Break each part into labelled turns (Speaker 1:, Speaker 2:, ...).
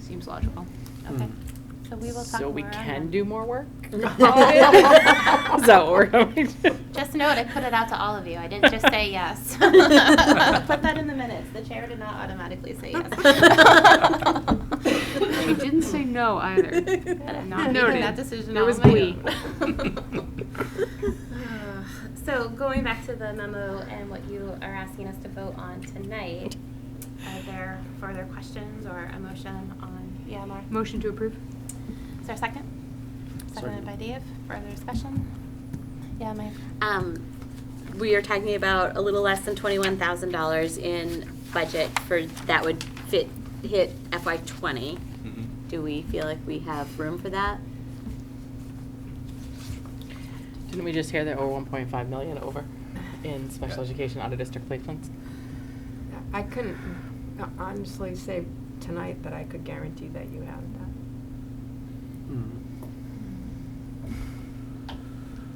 Speaker 1: seems logical.
Speaker 2: Okay,
Speaker 3: so we will talk more.
Speaker 1: Hmm. So we
Speaker 3: on
Speaker 1: can
Speaker 3: that.
Speaker 1: do more work?
Speaker 3: Oh.
Speaker 1: Is that what we're going to?
Speaker 3: Just note, I put it out to all of you. I didn't just say yes. Put that in the minutes. The chair did not automatically say yes.
Speaker 1: She didn't say no either. Not
Speaker 3: I'm making
Speaker 1: noted.
Speaker 3: that decision
Speaker 1: There
Speaker 3: on
Speaker 1: was
Speaker 3: my
Speaker 1: glee.
Speaker 3: Uh, So going back to the memo and what you are asking us to vote on tonight, are there further questions or a motion on EMR?
Speaker 1: Motion to approve?
Speaker 3: Is there a second? Seconded
Speaker 2: Second.
Speaker 3: by Dave. Further discussion? Yeah, Mike?
Speaker 4: Um, we are talking about a little less than twenty-one thousand dollars in budget for, that would fit, hit FY twenty. Do we feel like we have room for that?
Speaker 1: Didn't we just hear that we're 1.5 million over in special education out of district placements?
Speaker 5: I couldn't uh, honestly say tonight that I could guarantee that you have that.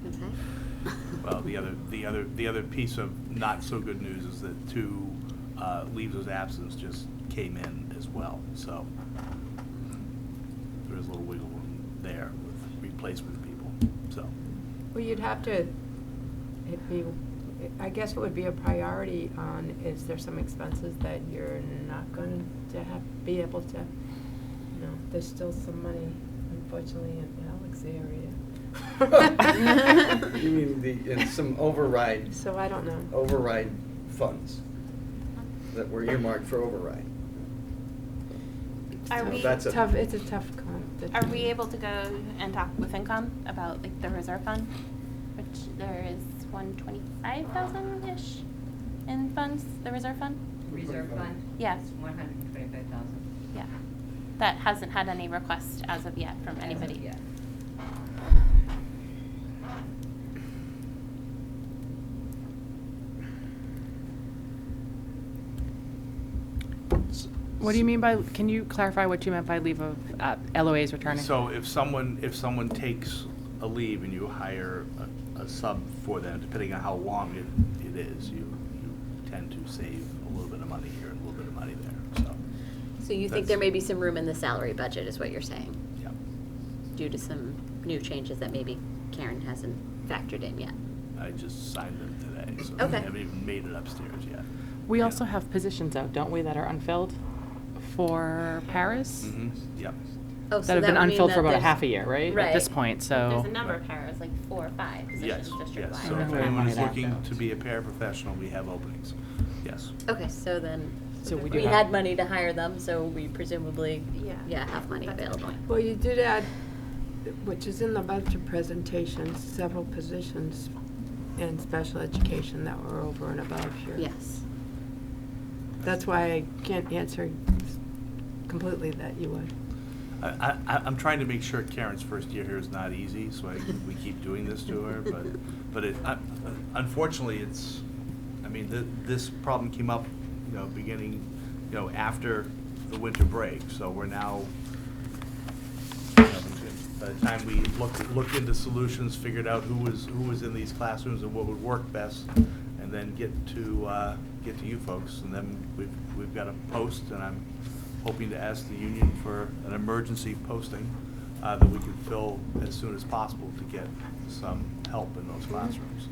Speaker 4: Okay.
Speaker 6: Well, the other, the other, the other piece of not so good news is that two uh, leaves of absence just came in as well, so there is a little wiggle room there with replacement people, so.
Speaker 5: Well, you'd have to, it'd be, I guess what would be a priority on, is there some expenses that you're not going to have, be able to, you know, there's still some money, unfortunately, in Alex area.
Speaker 2: You mean the, and some override,
Speaker 5: So I don't know.
Speaker 2: override funds that were earmarked for override.
Speaker 3: Are
Speaker 2: So
Speaker 3: we,
Speaker 2: that's a-
Speaker 5: Tough, it's a tough uh, con.
Speaker 3: are we able to go and talk with FinCom about like the reserve fund? Which there is one twenty-five thousand-ish in funds, the reserve fund?
Speaker 7: Reserve fund?
Speaker 3: Yeah.
Speaker 7: It's one hundred and twenty-five thousand.
Speaker 3: Yeah. That hasn't had any requests as of yet from anybody.
Speaker 7: Yeah.
Speaker 1: What do you mean by, can you clarify what you meant by leave of, uh, LOAs returning?
Speaker 6: So if someone, if someone takes a leave and you hire a, a sub for them, depending on how long it, it is, you, you tend to save a little bit of money here and a little bit of money there, so,
Speaker 4: So you think there may be some room in the salary budget, is what you're saying,
Speaker 6: yeah.
Speaker 4: due to some new changes that maybe Karen hasn't factored in yet?
Speaker 6: I just signed them today, so
Speaker 4: Okay.
Speaker 6: I haven't even made it upstairs yet.
Speaker 1: We
Speaker 6: Yeah.
Speaker 1: also have positions out, don't we, that are unfilled for Paris?
Speaker 6: Mhm, Yep.
Speaker 4: Oh, so
Speaker 1: That have been
Speaker 4: would mean
Speaker 1: unfilled
Speaker 4: that
Speaker 1: for about a
Speaker 4: there's-
Speaker 1: half a year, right? At this
Speaker 4: Right.
Speaker 1: point, so.
Speaker 3: There's a number of pairs, like four or five
Speaker 6: Yes,
Speaker 3: positions district-wide.
Speaker 6: yes. So if
Speaker 1: Remember
Speaker 6: anyone is
Speaker 1: that.
Speaker 6: looking to be a paraprofessional, we have openings. Yes.
Speaker 4: Okay, so then,
Speaker 1: So we do
Speaker 4: we
Speaker 1: have-
Speaker 4: had money to hire them, so we presumably,
Speaker 3: Yeah.
Speaker 4: yeah, have money
Speaker 3: That's a good
Speaker 4: available.
Speaker 3: point.
Speaker 5: Well, you did add, which is in the budget presentation, several positions in special education that were over and above here.
Speaker 4: Yes.
Speaker 5: That's why I can't answer completely that you would.
Speaker 6: I, I, I- I'm trying to make sure Karen's first year here is not easy, so I, we keep doing this to her, but, but it, I- unfortunately, it's, I mean, th- this problem came up, you know, beginning, you know, after the winter break, so we're now, by the time we looked, looked into solutions, figured out who was, who was in these classrooms and what would work best, and then get to, uh, get to you folks, and then we've, we've got a post, and I'm hoping to ask the union for an emergency posting, uh, that we can fill as soon as possible to get some help in those classrooms.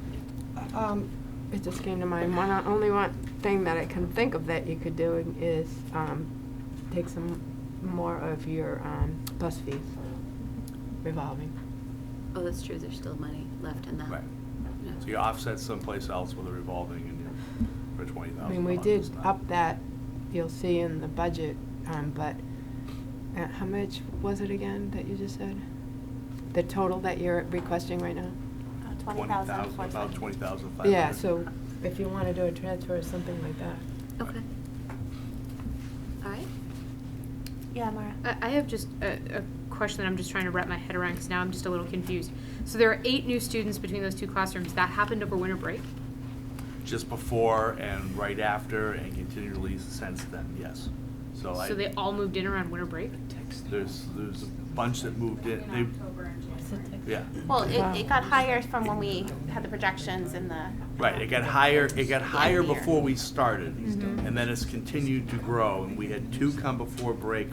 Speaker 5: Um, It just came to mind, one, uh, only one thing that I can think of that you could do is um, take some more of your um, bus fees revolving.
Speaker 4: Oh, that's true, there's still money left in that.
Speaker 6: Right.
Speaker 4: Yeah.
Speaker 6: So you offset someplace else with a revolving and you're, for twenty
Speaker 5: I
Speaker 6: thousand.
Speaker 5: mean, we did up that, you'll see in the budget, um, but uh, how much was it again that you just said? The total that you're requesting right now?
Speaker 3: uh, Twenty thousand, four
Speaker 6: About
Speaker 3: seventy.
Speaker 6: twenty thousand five hundred.
Speaker 5: Yeah, so if you want to do a transfer or something like that.
Speaker 4: Okay. All right.
Speaker 3: Yeah, Mara.
Speaker 8: I I have just a, a question that I'm just trying to wrap my head around because now I'm just a little confused. So there are eight new students between those two classrooms. That happened over winter break?
Speaker 6: Just before and right after and continually since then, yes. So Oh, I,
Speaker 8: So they all moved in around winter break?
Speaker 6: there's, there's a bunch that moved in, they, yeah.
Speaker 3: Well, it, it got higher from when we had the projections in the.
Speaker 6: Right, it got higher, it got
Speaker 3: year.
Speaker 6: higher before we started, and then it's continued to grow, and we had two come before break,